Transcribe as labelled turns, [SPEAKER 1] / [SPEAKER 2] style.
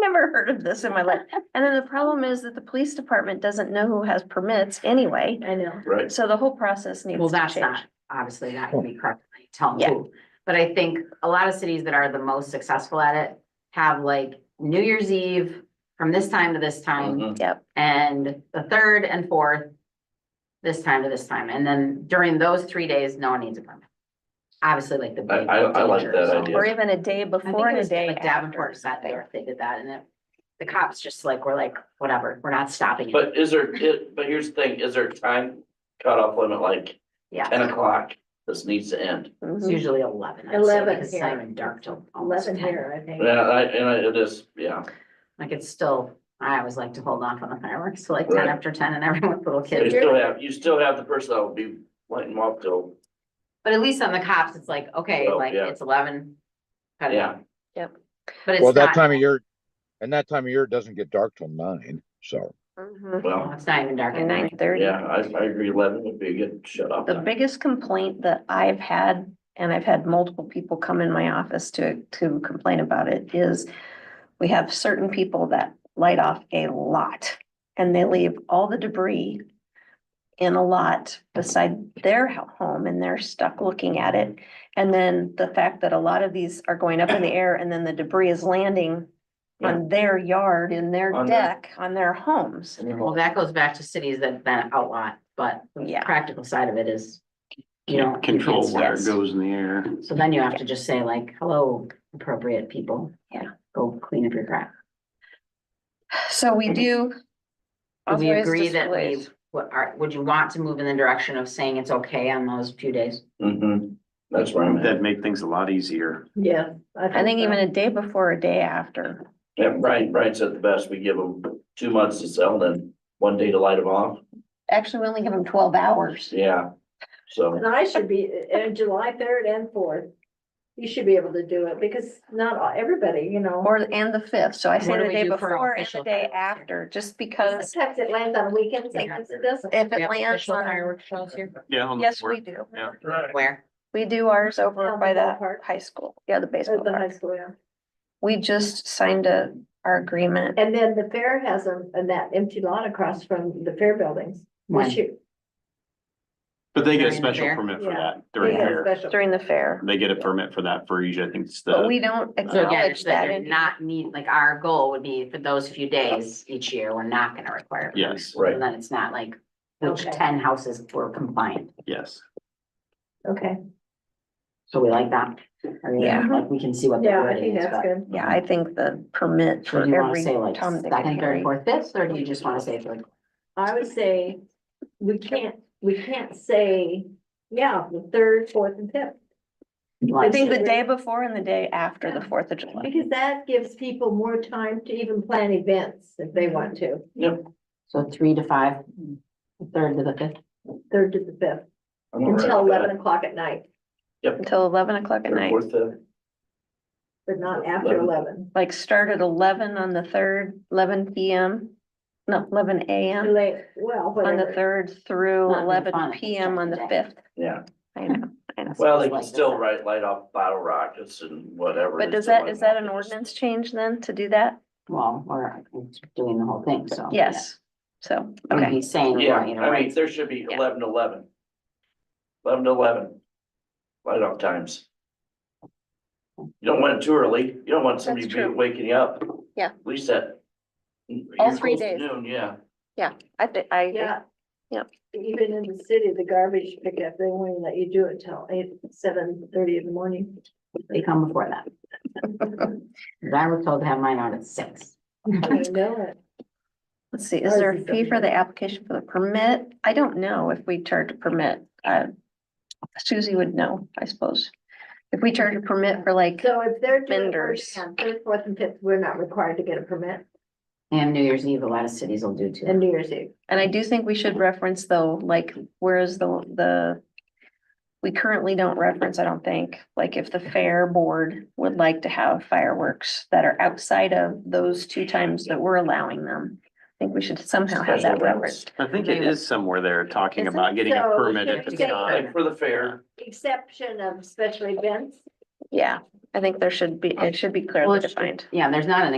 [SPEAKER 1] never heard of this in my life. And then the problem is that the police department doesn't know who has permits anyway.
[SPEAKER 2] I know.
[SPEAKER 3] Right,
[SPEAKER 1] So the whole process needs
[SPEAKER 2] Well,
[SPEAKER 1] to
[SPEAKER 2] that's
[SPEAKER 1] change.
[SPEAKER 2] not, obviously not gonna be correctly tell
[SPEAKER 1] Yeah.
[SPEAKER 2] them who. But I think a lot of cities that are the most successful at it have like New Year's Eve from this time to this time.
[SPEAKER 3] Mhm.
[SPEAKER 1] Yep.
[SPEAKER 2] And the third and fourth, this time to this time. And then during those three days, no one needs a permit. Obviously, like the.
[SPEAKER 3] I-
[SPEAKER 2] big
[SPEAKER 3] I- I like
[SPEAKER 2] dangers.
[SPEAKER 3] that idea.
[SPEAKER 1] Or even a day
[SPEAKER 2] I think
[SPEAKER 1] before
[SPEAKER 2] it
[SPEAKER 1] and a
[SPEAKER 2] was
[SPEAKER 1] day
[SPEAKER 2] like Davenport
[SPEAKER 1] after.
[SPEAKER 2] sat there, they did that and it, the cops just like, were like, whatever, we're not stopping it.
[SPEAKER 3] Mm-hmm. but is there, it, but here's the thing, is there a time cutoff limit, like ten
[SPEAKER 2] Yeah,
[SPEAKER 3] o'clock, this needs to end?
[SPEAKER 2] it's
[SPEAKER 1] Mhm.
[SPEAKER 2] usually eleven. I'd say,
[SPEAKER 4] 11
[SPEAKER 2] because It's not even dark till almost
[SPEAKER 4] Eleven
[SPEAKER 2] 10.
[SPEAKER 4] here, I think.
[SPEAKER 3] Yeah, I, and I, it is, yeah,
[SPEAKER 2] Like it's still, I always like to hold off on the fireworks till like ten
[SPEAKER 3] Right.
[SPEAKER 2] after ten and everyone's little
[SPEAKER 3] you
[SPEAKER 2] kids.
[SPEAKER 3] still have, you still have the person that will be lighting them up till,
[SPEAKER 2] But at least on the cops, it's like, okay,
[SPEAKER 3] Oh,
[SPEAKER 2] like
[SPEAKER 3] yeah.
[SPEAKER 2] it's eleven. cut it
[SPEAKER 3] yeah,
[SPEAKER 2] out.
[SPEAKER 1] Yep.
[SPEAKER 2] But it's
[SPEAKER 5] Well, that
[SPEAKER 2] not,
[SPEAKER 5] time of year, and that time of year it doesn't get dark till nine, so.
[SPEAKER 1] Mhm.
[SPEAKER 3] well,
[SPEAKER 2] well, it's not even dark at
[SPEAKER 1] And nine
[SPEAKER 2] night.
[SPEAKER 1] thirty.
[SPEAKER 3] yeah, I, I agree, eleven would be a good shut off.
[SPEAKER 1] The
[SPEAKER 3] time.
[SPEAKER 1] biggest complaint that I've had, and I've had multiple people come in my office to, to complain about it, is we have certain people that light off a lot and they leave all the debris in a lot beside their ho- home and they're stuck looking at it. And then the fact that a lot of these are going up in the air and then the debris is landing on their yard, in their
[SPEAKER 3] On their-
[SPEAKER 1] deck, on their homes.
[SPEAKER 2] Well, that goes back to cities that that outlaw, but the
[SPEAKER 1] Yeah.
[SPEAKER 2] practical side of it is. You don't.
[SPEAKER 6] Control where it
[SPEAKER 2] Yes.
[SPEAKER 6] goes in the air.
[SPEAKER 2] So then you have to just say like, hello, appropriate people.
[SPEAKER 1] Yeah.
[SPEAKER 2] Go clean up your crap.
[SPEAKER 1] So we do.
[SPEAKER 2] Do we
[SPEAKER 1] authorize
[SPEAKER 2] agree that we,
[SPEAKER 1] displays.
[SPEAKER 2] what are, would you want to move in the direction of saying it's okay on those few days?
[SPEAKER 3] Mm-hmm, that's where I'm at,
[SPEAKER 6] That'd make things a lot easier.
[SPEAKER 4] Yeah.
[SPEAKER 1] I think
[SPEAKER 4] so.
[SPEAKER 1] even a day before, a day after.
[SPEAKER 3] yeah, Brian, Brian said the best, we give them two months to sell, then one day to light them off,
[SPEAKER 1] Actually, we only give them twelve hours.
[SPEAKER 3] yeah, so,
[SPEAKER 4] And I should be, in July third and fourth, you should be able to do it because not all- everybody, you know.
[SPEAKER 1] Or, and the fifth, so I say
[SPEAKER 2] What do
[SPEAKER 1] the
[SPEAKER 2] we
[SPEAKER 1] day
[SPEAKER 2] do for
[SPEAKER 1] before and the
[SPEAKER 2] official
[SPEAKER 1] day
[SPEAKER 2] fireworks?
[SPEAKER 1] after, just because
[SPEAKER 4] Sometimes it lands on weekends, sometimes it doesn't.
[SPEAKER 1] if
[SPEAKER 2] We
[SPEAKER 1] it
[SPEAKER 2] have
[SPEAKER 1] lands
[SPEAKER 2] official
[SPEAKER 1] on.
[SPEAKER 2] fireworks shows here?
[SPEAKER 6] Yeah. on the
[SPEAKER 1] Yes,
[SPEAKER 6] fourth.
[SPEAKER 1] we do.
[SPEAKER 6] Yeah.
[SPEAKER 2] Where?
[SPEAKER 1] We do ours over
[SPEAKER 4] Down
[SPEAKER 1] by
[SPEAKER 4] the
[SPEAKER 1] the
[SPEAKER 4] ballpark.
[SPEAKER 1] high school, yeah, the baseball
[SPEAKER 4] At the high
[SPEAKER 1] park.
[SPEAKER 4] school, yeah.
[SPEAKER 1] We just signed a, our agreement.
[SPEAKER 4] And then the fair has them and that empty lot across from the fair buildings. We
[SPEAKER 2] When?
[SPEAKER 4] should-
[SPEAKER 6] But they get
[SPEAKER 2] During
[SPEAKER 6] a
[SPEAKER 2] the
[SPEAKER 6] special
[SPEAKER 2] fair?
[SPEAKER 6] permit for
[SPEAKER 4] Yeah.
[SPEAKER 6] that
[SPEAKER 4] They
[SPEAKER 6] during
[SPEAKER 4] have a
[SPEAKER 6] fair.
[SPEAKER 4] special.
[SPEAKER 1] During the fair,
[SPEAKER 6] They get a permit for that for each, I think it's
[SPEAKER 1] but
[SPEAKER 6] the,
[SPEAKER 1] we don't
[SPEAKER 2] So again,
[SPEAKER 1] acknowledge
[SPEAKER 2] it's that
[SPEAKER 1] that.
[SPEAKER 2] you're
[SPEAKER 1] in-
[SPEAKER 2] not need, like our goal would be for those few days each year, we're not gonna require.
[SPEAKER 6] yes,
[SPEAKER 3] right.
[SPEAKER 2] And then it's not like which
[SPEAKER 4] Okay.
[SPEAKER 2] ten houses were compliant.
[SPEAKER 6] yes.
[SPEAKER 4] Okay,
[SPEAKER 2] So we like that. I mean,
[SPEAKER 1] Yeah.
[SPEAKER 2] Like we can see what the
[SPEAKER 4] yeah, I
[SPEAKER 2] wording
[SPEAKER 4] think
[SPEAKER 2] is,
[SPEAKER 4] that's
[SPEAKER 2] but.
[SPEAKER 4] good.
[SPEAKER 1] Yeah, I think the permit
[SPEAKER 2] So
[SPEAKER 1] for
[SPEAKER 2] do you wanna
[SPEAKER 1] every
[SPEAKER 2] say like
[SPEAKER 1] Tom, Dick, and
[SPEAKER 2] second, third,
[SPEAKER 1] Harry.
[SPEAKER 2] fourth, fifth, or do you just wanna say like?
[SPEAKER 4] I would say, we can't, we can't say, yeah, the third, fourth and fifth.
[SPEAKER 1] I
[SPEAKER 2] like-
[SPEAKER 1] think the day before and the day after the
[SPEAKER 4] Yeah.
[SPEAKER 1] Fourth of July.
[SPEAKER 4] Because that gives people more time to even plan events if they want to,
[SPEAKER 2] So three to five, the third to the fifth.
[SPEAKER 4] third to the fifth,
[SPEAKER 3] I'm all right
[SPEAKER 4] until
[SPEAKER 3] with that.
[SPEAKER 4] eleven o'clock at night,
[SPEAKER 1] Until eleven o'clock at
[SPEAKER 3] Third,
[SPEAKER 1] night.
[SPEAKER 3] fourth, fifth.
[SPEAKER 4] but not after eleven.
[SPEAKER 1] like start at eleven on the third, eleven P M. No, eleven A M
[SPEAKER 4] Late, well,
[SPEAKER 1] on the
[SPEAKER 4] whatever.
[SPEAKER 1] third through
[SPEAKER 2] Not gonna
[SPEAKER 1] eleven
[SPEAKER 2] find it.
[SPEAKER 1] P M on the fifth.
[SPEAKER 3] Yeah.
[SPEAKER 1] I know, I know.
[SPEAKER 3] Well, they
[SPEAKER 2] Like
[SPEAKER 3] can
[SPEAKER 2] the
[SPEAKER 3] still
[SPEAKER 2] fact-
[SPEAKER 3] write, light off bottle rockets and whatever.
[SPEAKER 1] But
[SPEAKER 3] they
[SPEAKER 1] does
[SPEAKER 3] still
[SPEAKER 1] that,
[SPEAKER 3] light
[SPEAKER 1] is that an
[SPEAKER 3] them off.
[SPEAKER 1] ordinance change then to do that?
[SPEAKER 2] Well, we're doing the whole thing, so.
[SPEAKER 1] Yes, so,
[SPEAKER 2] yeah. We'd
[SPEAKER 1] okay,
[SPEAKER 2] be saying,
[SPEAKER 3] Yeah,
[SPEAKER 2] well, you know,
[SPEAKER 3] I mean,
[SPEAKER 2] right,
[SPEAKER 3] there should be
[SPEAKER 1] Yeah.
[SPEAKER 3] eleven to eleven. Eleven to eleven. Light off times. You don't want it too early, you don't want somebody
[SPEAKER 1] That's
[SPEAKER 3] be
[SPEAKER 1] true.
[SPEAKER 3] waking you up.
[SPEAKER 1] Yeah.
[SPEAKER 3] At least that.
[SPEAKER 1] All
[SPEAKER 3] you're
[SPEAKER 1] three
[SPEAKER 3] close
[SPEAKER 1] days.
[SPEAKER 3] to Noon, yeah,
[SPEAKER 1] I thi- I, agree.
[SPEAKER 4] Yeah.
[SPEAKER 1] Yep.
[SPEAKER 4] Even in the city, the garbage pickup, they won't let you do it till eight, seven thirty in the morning.
[SPEAKER 2] they come before that. But I was told to have mine out at six.
[SPEAKER 4] I know it.
[SPEAKER 1] let's see, is there a
[SPEAKER 4] Ours is
[SPEAKER 1] fee for
[SPEAKER 4] seven.
[SPEAKER 1] the application for the permit? I don't know if we charge a permit. Uh, Susie would know, I suppose. If we charge a permit for like,
[SPEAKER 4] So if they're doing, we're
[SPEAKER 1] Vendors.
[SPEAKER 4] doing on third, fourth and fifth, we're not required to get a permit
[SPEAKER 2] And New Year's Eve, a lot of cities will do
[SPEAKER 4] in
[SPEAKER 2] too.
[SPEAKER 4] New Year's Eve.
[SPEAKER 1] And I do think we should reference though, like, whereas the, the. We currently don't reference, I don't think, like if the fair board would like to have fireworks that are outside of those two times that we're allowing them. I think we should somehow have
[SPEAKER 3] Special
[SPEAKER 1] that
[SPEAKER 3] events.
[SPEAKER 1] referenced.
[SPEAKER 6] I think it is somewhere there talking
[SPEAKER 1] Is it?
[SPEAKER 6] about getting a
[SPEAKER 4] So,
[SPEAKER 6] permit if
[SPEAKER 4] should
[SPEAKER 6] it's
[SPEAKER 4] we say-
[SPEAKER 6] not.
[SPEAKER 3] like for the fair,
[SPEAKER 4] Exception of special events.
[SPEAKER 1] Yeah, I think there should be, it should be clearly
[SPEAKER 2] Um, Well, it's-
[SPEAKER 1] defined.
[SPEAKER 2] Yeah, there's not an